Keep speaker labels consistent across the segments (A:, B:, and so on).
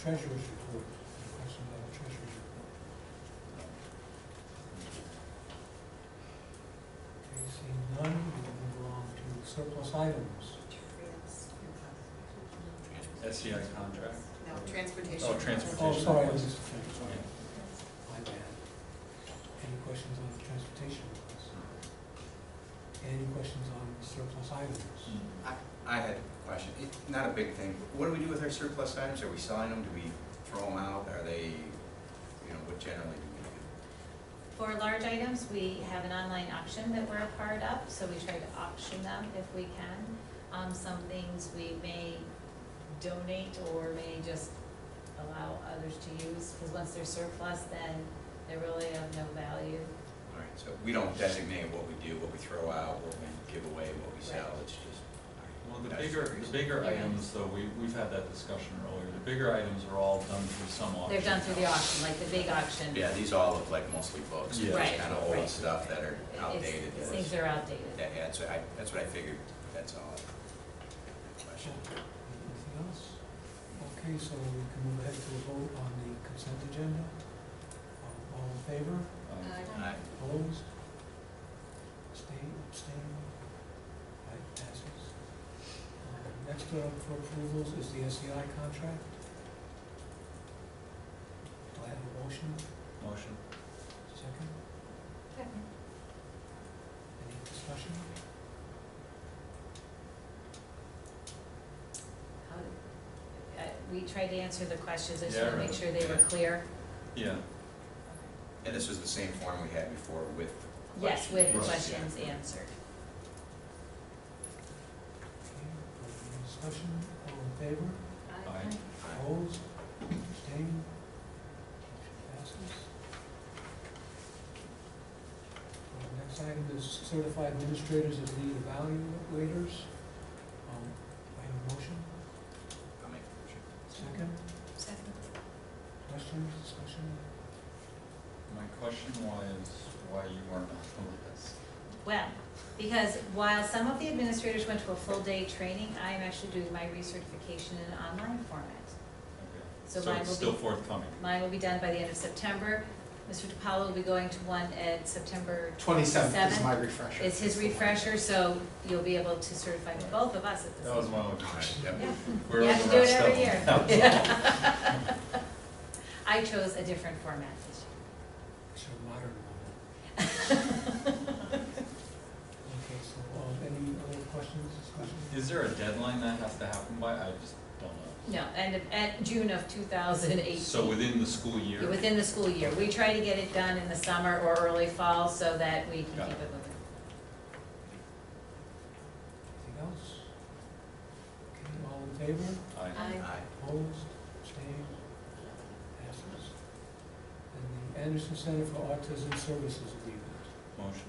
A: treasurer's report, request another treasurer's report. Okay, seeing none, we will move along to surplus items.
B: Trans-
C: SCI contract.
B: No, transportation.
C: Oh, transportation.
A: Oh, sorry, I was
C: request.
A: just, sorry, my bad. Any questions on the transportation request? Any questions on surplus items?
D: I, I had a question, It's not a big thing, but what do we do with our surplus items? Are we selling them, do we throw them out, are they, you know, what generally do we do?
E: For large items, we have an online auction that we're a part of, so we try to auction them if we can. Um, some things we may donate or may just allow others to use, because once they're surplus, then they're really of no value.
D: All right, so we don't designate what we do, what we throw out, what we give away, what we sell,
E: Right.
D: it's just.
C: Well, the
D: That's
C: bigger, the
D: reason.
C: bigger
E: Yeah.
C: items, though, we, we've had that discussion earlier, the bigger items are all done through some auction.
E: They're done through the auction, like the big auction.
D: Yeah, these all look like mostly books,
C: Yeah.
D: just
E: Right,
D: kind of
E: right.
D: old stuff that are
E: It's-
D: outdated.
E: it's Things that are outdated.
D: Yeah, yeah, that's what I, that's what I figured, that's all. Question.
A: Anything else? Okay, so we can move ahead to a vote on the consent agenda. Um, All in favor?
C: Um,
D: Aye.
A: Opposed? Abstain, abstain? Right, passes. Um, Next up for approvals is the SEI contract. Do I have a motion?
E: uh,
C: Motion.
A: Second? Any discussion?
E: How did- uh, We tried to answer the questions, I just
C: Yeah,
E: want to make
C: right.
E: sure they were clear.
C: Yeah,
D: And this was the same form we had before with.
E: Yes, with the
C: Right.
E: questions answered.
A: Okay, no discussion? All in favor?
C: aye.
D: Aye.
A: Opposed? Abstained? Motion passes. Uh, Next item is certified administrators of lead evaluators. Um, I have a motion,
D: I'll make a motion.
A: second,
E: Second.
A: questions, discussion?
C: My question was why you weren't on the list.
E: Well, because while some of the administrators went to a full-day training, I am actually doing my recertification in an online format.
C: Okay.
E: So mine
C: it's
E: will
C: still
E: be-
C: forthcoming.
E: Mine will be done by the end of September. Mr. DiPaolo will be going to one at September,
F: Twenty-seventh is
E: Seven.
F: my refresher.
E: it's his refresher, so you'll be able to certify both of us at the
C: That was
E: same.
C: my only
D: All right,
C: question.
D: yep.
E: Yeah,
C: Where
E: You
C: was
E: have to
C: the
E: do it
C: rest of
E: every
C: them?
E: year.
C: That was all.
E: I chose a different format this year.
A: It's a modern one. Okay, so, um, any other questions, discussion?
C: Is there a deadline that has to happen by? I just don't know.
E: No, end of, at June of two thousand eighteen.
C: So within the school year?
E: Within the school year. We try to get it done in the summer or early fall so that we can keep
C: Got
E: it
C: it.
E: moving.
A: Anything else? Okay, all in favor?
C: Aye.
D: Aye.
A: Opposed, abstained, passes. And the Anderson Center for Autism Services Agreement,
C: Motion.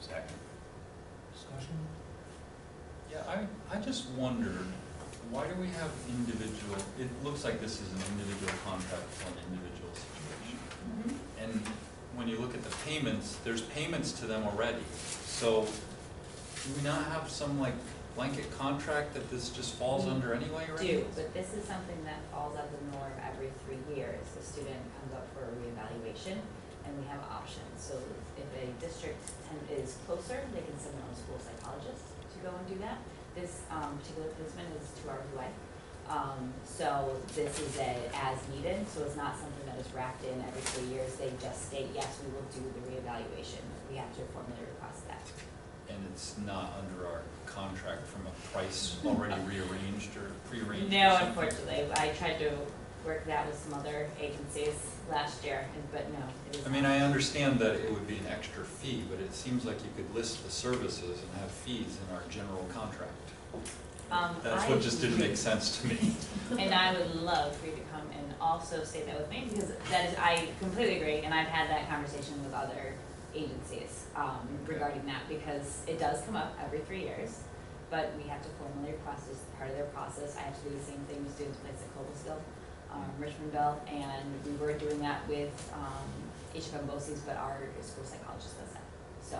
D: Second.
A: discussion?
C: Yeah, I, I just wondered, why do we have individual, it looks like this is an individual contract for an individual situation.
E: Mhm.
C: And when you look at the payments, there's payments to them already. So do we not have some like blanket contract that this just falls under anyway right?
G: Mm. do, but this is something that falls out of the norm every three years. The student comes up for a reevaluation and we have options. So if a district ten- is closer, they can send their own school psychologist to go and do that. This um, particular placement is two hours away. Um, So this is a as needed, so it's not something that is wrapped in every three years. They just state, yes, we will do the reevaluation. We have to formally request that.
C: And it's not under our contract from a price already rearranged or prearranged or
G: No,
C: something?
G: unfortunately, I tried to work that with some other agencies last year, and- but no, it is.
C: I mean, I understand that it would be an extra fee, but it seems like you could list the services and have fees in our general contract.
G: Um,
C: That's what
G: I-
C: just didn't make sense to me.
G: And I would love for you to come and also say that with me, because that is, I completely agree, and I've had that conversation with other agencies, um, regarding that, because it does come up every three years. But we have to formally request as part of their process, I have to do the same thing with students placed at Cobblestone, um, Richmond Bell, and we were doing that with, um, HFM BOCES, but our school psychologist does that, so.